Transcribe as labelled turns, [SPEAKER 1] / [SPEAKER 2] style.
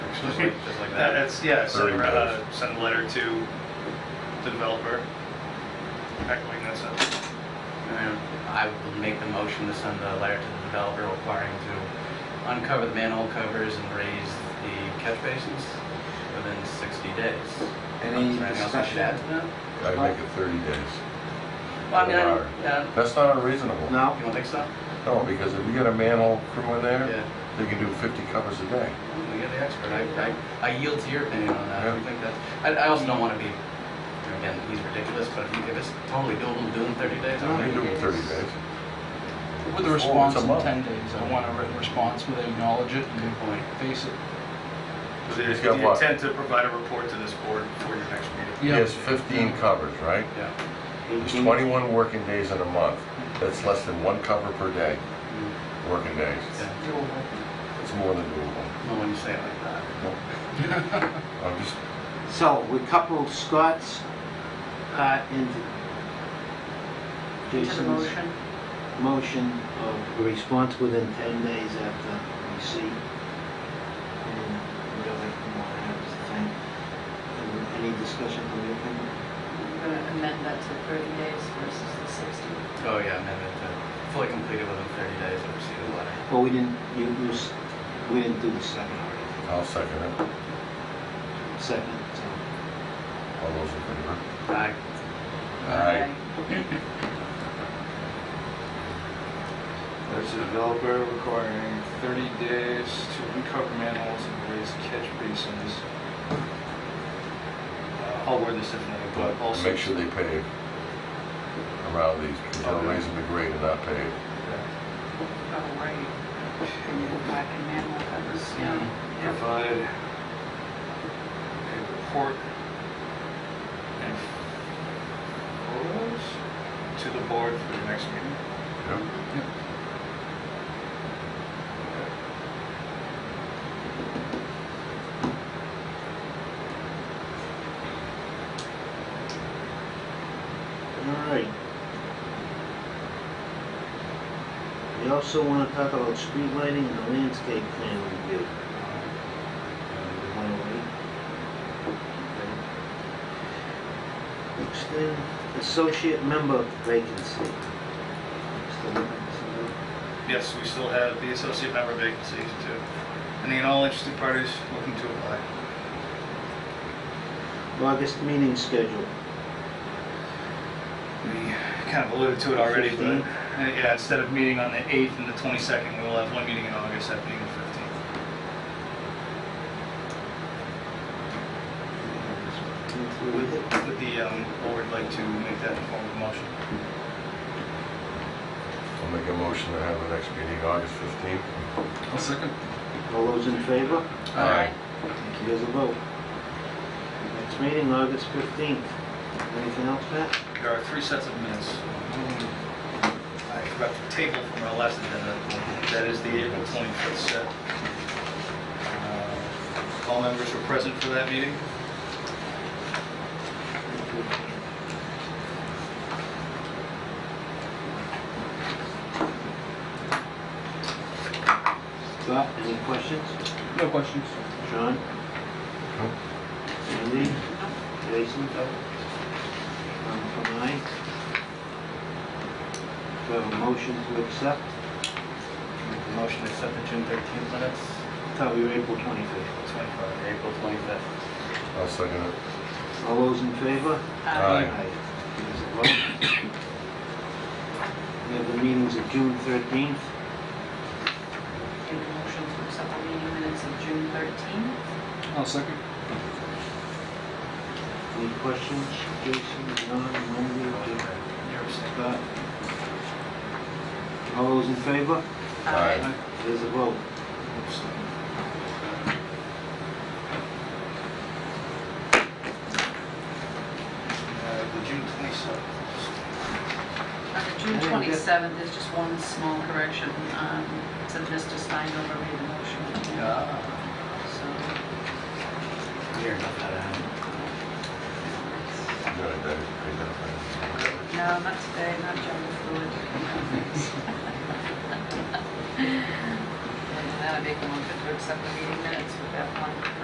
[SPEAKER 1] Just like- just like
[SPEAKER 2] That-
[SPEAKER 1] that.
[SPEAKER 2] That's, yeah, send,
[SPEAKER 3] Thirty
[SPEAKER 2] uh,
[SPEAKER 3] days.
[SPEAKER 2] send a letter to the developer echoing this up.
[SPEAKER 1] I would make the motion to send a letter to the developer requiring to uncover the manhole covers and raise the catch basins within 60 days.
[SPEAKER 4] Any
[SPEAKER 1] Is there anything else I should add to that?
[SPEAKER 3] I'd make it 30 days.
[SPEAKER 1] Well, I mean, I
[SPEAKER 3] Or-
[SPEAKER 1] don't, yeah,
[SPEAKER 3] That's not unreasonable.
[SPEAKER 4] No?
[SPEAKER 1] you don't think so?
[SPEAKER 3] No, because if you got a manhole crew in there,
[SPEAKER 1] Yeah,
[SPEAKER 3] they can do 50 covers a day.
[SPEAKER 1] we get the expert. I, I, I yield to your opinion on that. I
[SPEAKER 3] Yeah.
[SPEAKER 1] think that's, I, I also don't want to be, again, he's ridiculous, but if you- if it's totally doable, do it in 30 days.
[SPEAKER 3] They
[SPEAKER 1] I'll
[SPEAKER 3] can
[SPEAKER 1] make
[SPEAKER 3] do it in 30 days.
[SPEAKER 5] With a
[SPEAKER 3] Or
[SPEAKER 5] response
[SPEAKER 3] once a
[SPEAKER 5] in
[SPEAKER 3] month.
[SPEAKER 5] 10 days. I want a written response where they acknowledge it
[SPEAKER 1] a good
[SPEAKER 5] and
[SPEAKER 1] point.
[SPEAKER 5] face it.
[SPEAKER 2] With
[SPEAKER 3] So
[SPEAKER 2] the
[SPEAKER 3] he's got what?
[SPEAKER 2] intent to provide a report to this board for your next meeting.
[SPEAKER 3] He
[SPEAKER 5] Yeah.
[SPEAKER 3] has 15 covers, right?
[SPEAKER 1] Yeah.
[SPEAKER 3] There's 21 working days in a month. That's less than one cover per day, working days.
[SPEAKER 1] Yeah.
[SPEAKER 3] It's more than doable.
[SPEAKER 1] Well, when you say it like that.
[SPEAKER 3] I'm just,
[SPEAKER 4] So we couple Scott's part into Jason's motion of a response within 10 days after receipt. And we don't have to know what happens to think. And Any discussion on anything?
[SPEAKER 6] We're gonna uh, amend that to 30 days versus the 60.
[SPEAKER 1] Oh, yeah, amendment to uh, fully completed within 30 days of receipt of the letter.
[SPEAKER 4] Well, we didn't, you, you, s- we didn't do the second already.
[SPEAKER 3] I'll second it.
[SPEAKER 4] Second, so.
[SPEAKER 3] All those in favor?
[SPEAKER 1] Aye.
[SPEAKER 3] Aye.
[SPEAKER 7] There's a developer requiring 30 days to uncover manholes and raise catch basins.
[SPEAKER 2] Uh, I'll word this differently, but also.
[SPEAKER 3] Make sure they pave around these, because they're raising the grade and not pave.
[SPEAKER 6] Oh, right. And you go back and manual covers, yeah.
[SPEAKER 7] Provide a report and photos?
[SPEAKER 2] To the board for your next meeting.
[SPEAKER 3] Yep.
[SPEAKER 4] All right. We also want to talk about street lighting and the landscape plan review.
[SPEAKER 7] Uh,
[SPEAKER 4] Wanna wait? Okay. Next thing, associate member vacancy. Still looking for somebody?
[SPEAKER 2] Yes, we still have the associate member vacancies too. And then all interested parties looking to apply.
[SPEAKER 4] August meeting schedule.
[SPEAKER 2] We kind of alluded to it already, but,
[SPEAKER 4] Fifteen.
[SPEAKER 2] uh, yeah, instead of meeting on the 8th and the 22nd, we will have one meeting in August, that being the 15th. With, with the, um, board like to make that in form of motion.
[SPEAKER 3] I'll make a motion to have the next meeting August 15th.
[SPEAKER 5] I'll second.
[SPEAKER 4] All those in favor?
[SPEAKER 3] Aye.
[SPEAKER 4] Thank you. There's a vote. Next meeting, August 15th. Anything else, Matt?
[SPEAKER 2] There are three sets of minutes. I forgot the table from our last agenda, that is the April 25th set. Uh, All members were present for that meeting.
[SPEAKER 4] Scott, any questions?
[SPEAKER 5] No questions.
[SPEAKER 4] Sean?
[SPEAKER 3] No.
[SPEAKER 4] Andy? Jason? Um, From mine? So motion to accept,
[SPEAKER 1] Make the motion to accept the June 13th minutes,
[SPEAKER 4] thought we were April 25th.
[SPEAKER 1] 25, April 25th.
[SPEAKER 3] I'll second it.
[SPEAKER 4] All those in favor?
[SPEAKER 6] uh,
[SPEAKER 3] Aye.
[SPEAKER 4] There's a vote. We have the meetings of June 13th.
[SPEAKER 6] Make a motion to accept the meeting minutes of June 13.
[SPEAKER 5] I'll second.
[SPEAKER 4] Any questions? Jason, John, Wendy, Dick,
[SPEAKER 2] You're abstaining.
[SPEAKER 4] Scott? All those in favor?
[SPEAKER 6] Uh,
[SPEAKER 3] Aye.
[SPEAKER 4] There's a vote.
[SPEAKER 2] Uh, The June 27th.
[SPEAKER 6] On June 27th, there's just one small correction, um, it said Mr. Steinberg made the motion.
[SPEAKER 2] Uh,
[SPEAKER 6] So,
[SPEAKER 1] Weird enough that happened.
[SPEAKER 3] Yeah, that is paid out.
[SPEAKER 6] no, not today, not junk food. And then I make a motion to accept the meeting minutes with that one